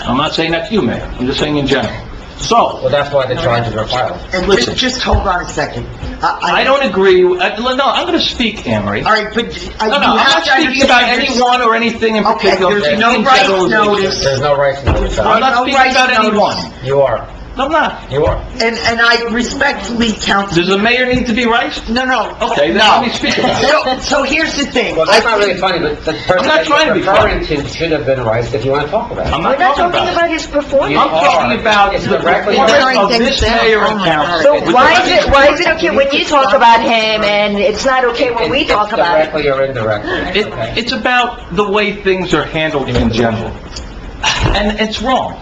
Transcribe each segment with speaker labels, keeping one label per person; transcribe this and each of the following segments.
Speaker 1: I'm not saying that's you, Mayor, I'm just saying in general. So,
Speaker 2: Well, that's why the charges are filed.
Speaker 3: And
Speaker 1: Listen.
Speaker 3: just, just hold on a second.
Speaker 1: I don't agree, with- uh, no, I'm gonna speak, Anne Marie.
Speaker 3: All right, but I,
Speaker 1: No, no, I'm
Speaker 3: you have
Speaker 1: not
Speaker 3: to
Speaker 1: speaking
Speaker 3: understand.
Speaker 1: about
Speaker 3: there's-
Speaker 1: anyone or anything in
Speaker 3: Okay,
Speaker 1: particular.
Speaker 3: there's
Speaker 1: In
Speaker 3: no
Speaker 1: general,
Speaker 3: rights notice,
Speaker 2: There's no rights notice
Speaker 1: I'm
Speaker 2: out.
Speaker 1: not
Speaker 3: no
Speaker 1: speaking about
Speaker 3: rights notice.
Speaker 1: anyone.
Speaker 2: You are,
Speaker 1: No, I'm not.
Speaker 2: you are.
Speaker 3: and, and I respectfully counsel,
Speaker 1: Does the mayor need to be right?
Speaker 3: no, no.
Speaker 1: Okay, then
Speaker 3: no.
Speaker 1: let me speak about it.
Speaker 3: So, so here's the thing.
Speaker 2: Well, that's not really funny, but the person
Speaker 1: not
Speaker 2: that
Speaker 1: trying to
Speaker 2: you're
Speaker 1: be
Speaker 2: referring to should have been right if you want to talk about it.
Speaker 1: I'm not
Speaker 4: We're not
Speaker 1: talking
Speaker 4: talking
Speaker 1: about it.
Speaker 4: about his performance.
Speaker 1: I'm talking about
Speaker 2: It's
Speaker 1: the
Speaker 2: directly-
Speaker 1: performance of this
Speaker 3: Tearing things
Speaker 1: mayor
Speaker 3: down.
Speaker 1: and
Speaker 3: Oh my God.
Speaker 1: council.
Speaker 3: So
Speaker 4: But Why is it, why is it okay when you talk about him and it's not okay when we
Speaker 2: It's
Speaker 4: talk about it?
Speaker 2: Directly or indirectly.
Speaker 1: It,
Speaker 2: Okay.
Speaker 1: it's about the way things are handled in general. And it's wrong.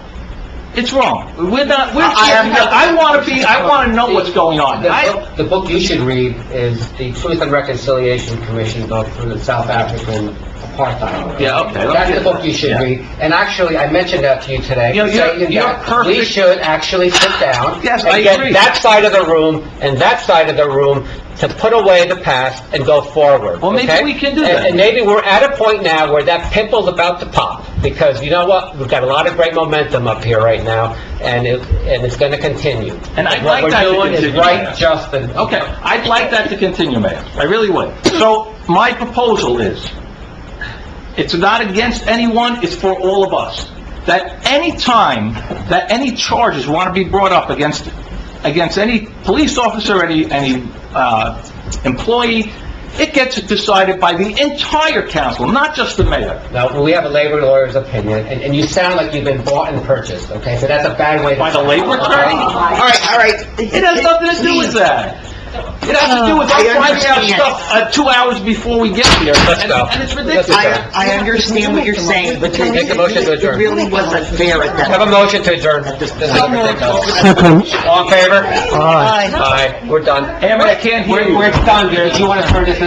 Speaker 1: It's wrong. We're not, we're,
Speaker 3: I- I have no-
Speaker 1: I want to be, I want to know what's going on.
Speaker 2: The
Speaker 1: I,
Speaker 2: book- The book you should read is The Truth and Reconciliation Commission book from the South African apartheid.
Speaker 1: Yeah, okay.
Speaker 2: That's the book you should
Speaker 1: Yeah.
Speaker 2: read. And actually, I mentioned that to you today.
Speaker 1: You know, you're-
Speaker 2: saying
Speaker 1: you're
Speaker 2: that We
Speaker 1: perfect.
Speaker 2: should actually sit down.
Speaker 1: Yes, I agree.
Speaker 2: And get that side of the room and that side of the room to put away the past and go forward.
Speaker 1: Well, maybe
Speaker 2: okay?
Speaker 1: we can do
Speaker 2: And-
Speaker 1: that.
Speaker 2: And maybe we're at a point now where that pimple's about to pop, because you know what? We've got a lot of great momentum up here right now, and it, and it's gonna continue.
Speaker 1: And I'd like that to
Speaker 2: What we're doing is
Speaker 1: continue.
Speaker 2: right, just, and...
Speaker 1: okay, I'd like that to continue, Mayor. I really would. So my proposal is, it's not against anyone, it's for all of us, that any time that any charges want to be brought up against, against any police officer, any, any, uh, employee, it gets decided by the entire council, not just the mayor.
Speaker 2: Now, we have a labor lawyer's opinion, and, and you sound like you've been bought and purchased, okay? So that's a bad way to... Uh,
Speaker 1: By the labor attorney?
Speaker 3: All right, all right.
Speaker 1: It has nothing to do with that. It has to do with,
Speaker 3: I
Speaker 1: I'm finding out
Speaker 3: understand.
Speaker 1: stuff, uh, two hours before we get here.
Speaker 2: Let's
Speaker 1: and-
Speaker 2: go.
Speaker 1: And it's ridiculous.
Speaker 2: Let's go.
Speaker 3: I, I understand what you're saying, but it
Speaker 2: Make a motion to
Speaker 3: it
Speaker 2: adjourn.
Speaker 3: really wasn't fair at that.
Speaker 2: Have a motion to adjourn. This is not ridiculous. All in favor?
Speaker 3: Aye.
Speaker 2: Aye, we're done.
Speaker 1: Hammond, I can't hear you.
Speaker 2: done, Gary. Do you want to turn this